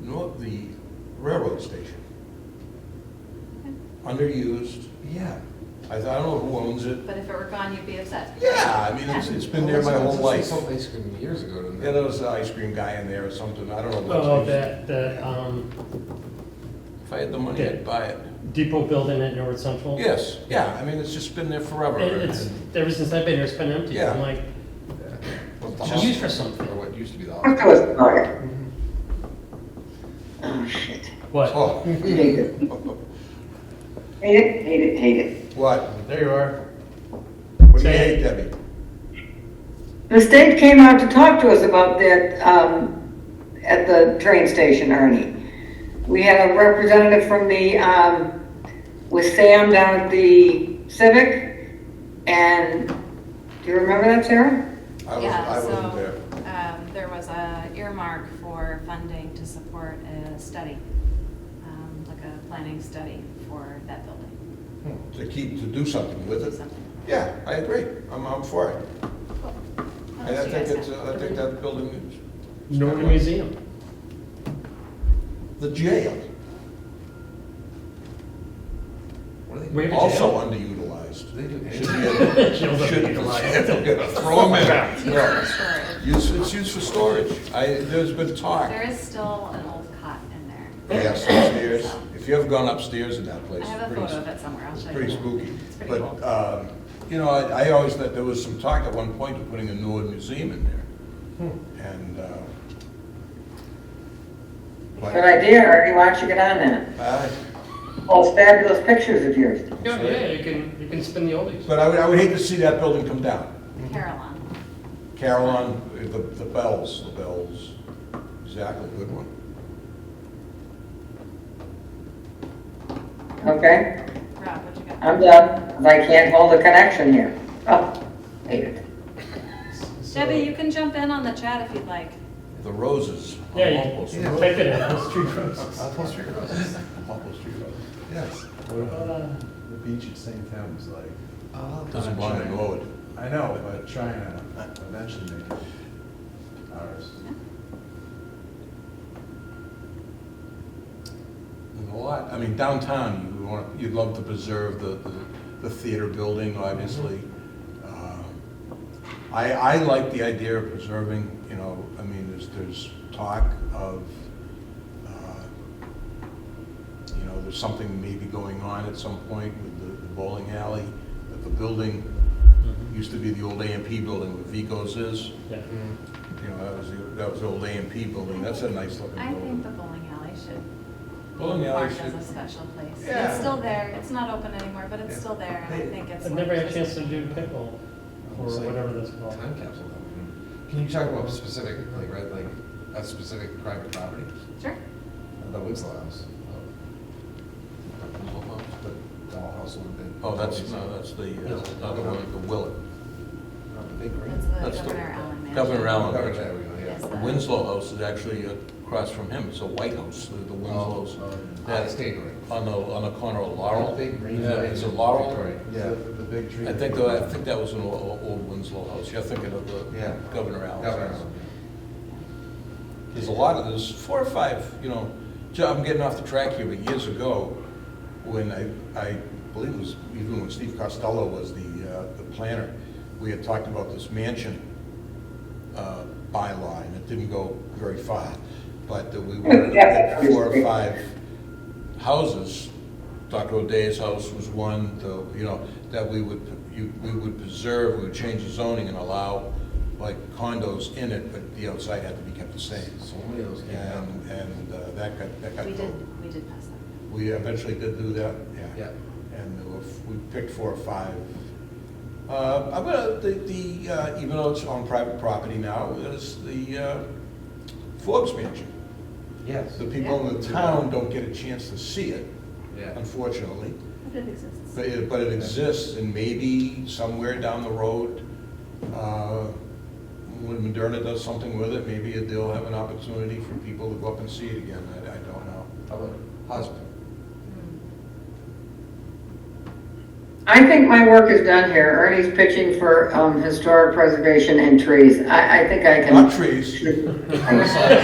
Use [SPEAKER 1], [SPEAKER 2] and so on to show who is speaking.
[SPEAKER 1] nor- the railroad station. Underused, yeah. I I don't know who owns it.
[SPEAKER 2] But if it were gone, you'd be upset.
[SPEAKER 1] Yeah, I mean, it's, it's been there my whole life.
[SPEAKER 3] Someplace from years ago, didn't
[SPEAKER 1] Yeah,
[SPEAKER 3] it?
[SPEAKER 1] there was an ice cream guy in there or something, I don't know. what
[SPEAKER 4] Oh,
[SPEAKER 1] it is.
[SPEAKER 4] that, that um,
[SPEAKER 1] If I had the money, I'd buy it.
[SPEAKER 4] depot building at Norwood Central?
[SPEAKER 1] Yes, yeah, I mean, it's just been there forever.
[SPEAKER 4] It- It's, ever since I've been here, it's been empty.
[SPEAKER 1] Yeah.
[SPEAKER 4] I'm like,
[SPEAKER 3] What's the
[SPEAKER 4] it's
[SPEAKER 3] hospital?
[SPEAKER 4] used for something.
[SPEAKER 3] Or what used to be the
[SPEAKER 5] What
[SPEAKER 3] hospital.
[SPEAKER 5] was that? Oh, shit.
[SPEAKER 4] What?
[SPEAKER 1] Oh,
[SPEAKER 5] Hate it. Hate it, hate it, hate it.
[SPEAKER 1] What? There you are. What do you
[SPEAKER 4] Say
[SPEAKER 1] hate,
[SPEAKER 4] it.
[SPEAKER 1] Debbie?
[SPEAKER 5] The state came out to talk to us about that, um, at the train station, Ernie. We had a representative from the, um, with Sam down at the Civic, and, do you remember that, Sarah?
[SPEAKER 1] I wasn't,
[SPEAKER 2] Yeah,
[SPEAKER 1] I wasn't
[SPEAKER 2] so,
[SPEAKER 1] there.
[SPEAKER 2] um, There was a earmark for funding to support a study, um, like a planning study for that building,
[SPEAKER 1] To keep, to do something with
[SPEAKER 2] do
[SPEAKER 1] it.
[SPEAKER 2] something.
[SPEAKER 1] Yeah, I agree, I'm, I'm for it. And I
[SPEAKER 2] So you guys
[SPEAKER 1] think it's,
[SPEAKER 2] have-
[SPEAKER 1] I think that building is.
[SPEAKER 4] Norwood Museum.
[SPEAKER 1] The jail,
[SPEAKER 3] What do they do?
[SPEAKER 4] Wait.
[SPEAKER 1] also
[SPEAKER 4] jail?
[SPEAKER 1] underutilized.
[SPEAKER 3] Do they do
[SPEAKER 1] Should
[SPEAKER 3] anything?
[SPEAKER 1] be, a-
[SPEAKER 4] Jails
[SPEAKER 1] should,
[SPEAKER 4] underutilized.
[SPEAKER 1] throw them
[SPEAKER 2] It's
[SPEAKER 1] in.
[SPEAKER 2] used
[SPEAKER 1] No. Use,
[SPEAKER 2] for storage.
[SPEAKER 1] it's used for storage. I, there's been talk.
[SPEAKER 2] There is still an old cot in there.
[SPEAKER 1] Yes, upstairs. If you haven't gone upstairs in that place,
[SPEAKER 2] I have
[SPEAKER 1] it's
[SPEAKER 2] a
[SPEAKER 1] pretty,
[SPEAKER 2] photo of it somewhere, I'll show you.
[SPEAKER 1] pretty spooky.
[SPEAKER 2] It's pretty
[SPEAKER 1] But,
[SPEAKER 2] cool.
[SPEAKER 1] um, you know, I, I always thought there was some talk at one point of putting a Norwood Museum in there.
[SPEAKER 6] Hmm.
[SPEAKER 1] And, uh, but,
[SPEAKER 5] Good idea, Ernie, why don't you get on that? Oh,
[SPEAKER 1] uh,
[SPEAKER 5] All fabulous pictures of yours.
[SPEAKER 4] Yeah, yeah, you can, you can spin the oldies.
[SPEAKER 1] but I would, I would hate to see that building come down.
[SPEAKER 2] Carillon.
[SPEAKER 1] Carillon, the, the bells, the bells. Exactly, good one.
[SPEAKER 5] Okay?
[SPEAKER 2] Rob, what you got?
[SPEAKER 5] I'm done, 'cause I can't hold a connection here. Oh, hate it.
[SPEAKER 2] Debbie, you can jump in on the chat if you'd like.
[SPEAKER 1] The roses. on
[SPEAKER 4] Yeah,
[SPEAKER 1] Walpole
[SPEAKER 4] you
[SPEAKER 1] Street.
[SPEAKER 4] can type it in, it's true roses.
[SPEAKER 3] Hospital Street Roses.
[SPEAKER 1] Walpole Street Road.
[SPEAKER 3] Yes.
[SPEAKER 6] What
[SPEAKER 1] Uh,
[SPEAKER 6] about uh, the beach at St. Thames, like?
[SPEAKER 1] Doesn't
[SPEAKER 3] I'm
[SPEAKER 1] belong
[SPEAKER 3] trying.
[SPEAKER 1] to Norwood.
[SPEAKER 6] I know, but trying to eventually make it ours.
[SPEAKER 1] There's a lot, I mean, downtown, you want, you'd love to preserve the, the- the theater building, obviously. Um, I, I like the idea of preserving, you know, I mean, there's, there's talk of, uh, you know, there's something maybe going on at some point with the- the bowling alley, that the building, used to be the old AMP building where Vico's is,
[SPEAKER 4] Mm-hmm. Yeah.
[SPEAKER 3] Mm,
[SPEAKER 1] you know, that was, the that was the old AMP building, that's a nice looking
[SPEAKER 2] I think
[SPEAKER 1] building.
[SPEAKER 2] the bowling alley should,
[SPEAKER 1] Bowling alley
[SPEAKER 2] mark as
[SPEAKER 1] should,
[SPEAKER 2] a special place.
[SPEAKER 1] Yeah.
[SPEAKER 2] It's still there, it's not open anymore, but it's still there, and I think it's.
[SPEAKER 4] I've never had a chance to do pickle, or
[SPEAKER 3] It's like
[SPEAKER 4] whatever that's called.
[SPEAKER 3] Time capsule. though. Can you talk about specific, like, right, like, a specific private property?
[SPEAKER 2] Sure.
[SPEAKER 3] The Winslow House. uh, the whole house, The doll house one thing.
[SPEAKER 1] oh, that's, no, that's the, that's another one, the Willet.
[SPEAKER 3] Big green.
[SPEAKER 2] That's the
[SPEAKER 1] That's the-
[SPEAKER 2] Governor Allen Mansion.
[SPEAKER 1] Governor Allen.
[SPEAKER 3] Covered that, we go, yeah.
[SPEAKER 2] Yes.
[SPEAKER 1] The Winslow House is actually across from him, it's a White House, the the
[SPEAKER 3] Oh.
[SPEAKER 1] Winslow's.
[SPEAKER 3] Yeah,
[SPEAKER 1] That-
[SPEAKER 3] it's big green.
[SPEAKER 1] On the, on the corner of Laurel.
[SPEAKER 3] Big green.
[SPEAKER 1] Yeah, it's a
[SPEAKER 3] Victoria.
[SPEAKER 1] Laurel.
[SPEAKER 6] The the big tree.
[SPEAKER 1] I think, though, I think that was an o- o- old Winslow House, you're thinking of
[SPEAKER 3] Yeah.
[SPEAKER 1] the Governor Allen.
[SPEAKER 3] Governor.
[SPEAKER 1] There's a lot of, there's four or five, you know, ju- I'm getting off the track here, but years ago, when I, I believe it was even when Steve Costello was the, uh, the planner, we had talked about this mansion, uh, bylaw, and it didn't go very far, but that we wanted to get four or five houses. Dr. O'Day's house was one, the, you know, that we would, you, we would preserve, we would change the zoning and allow like condos in it, but the outside had to be kept the same.
[SPEAKER 3] So many of those came out.
[SPEAKER 1] And, and uh, that got, that got
[SPEAKER 2] We
[SPEAKER 1] voted.
[SPEAKER 2] did, we did pass that.
[SPEAKER 1] We eventually did do that, yeah.
[SPEAKER 3] Yeah.
[SPEAKER 1] And there were, we picked four or five. Uh, I'm gonna, the, the, uh, even though it's on private property now, is the uh, Forbes Mansion.
[SPEAKER 3] Yes.
[SPEAKER 1] The people in the town don't get a chance to see it,
[SPEAKER 3] Yeah.
[SPEAKER 1] unfortunately,
[SPEAKER 2] But it exists.
[SPEAKER 1] but it, but it exists, and maybe somewhere down the road, uh, when Moderna does something with it, maybe they'll have an opportunity for people to go up and see it again, I, I don't know.
[SPEAKER 3] How about hospital?
[SPEAKER 2] Hmm.
[SPEAKER 5] I think my work is done here. Ernie's pitching for um, historic preservation and trees. I, I think I can.
[SPEAKER 1] Not trees.
[SPEAKER 3] I'm sorry.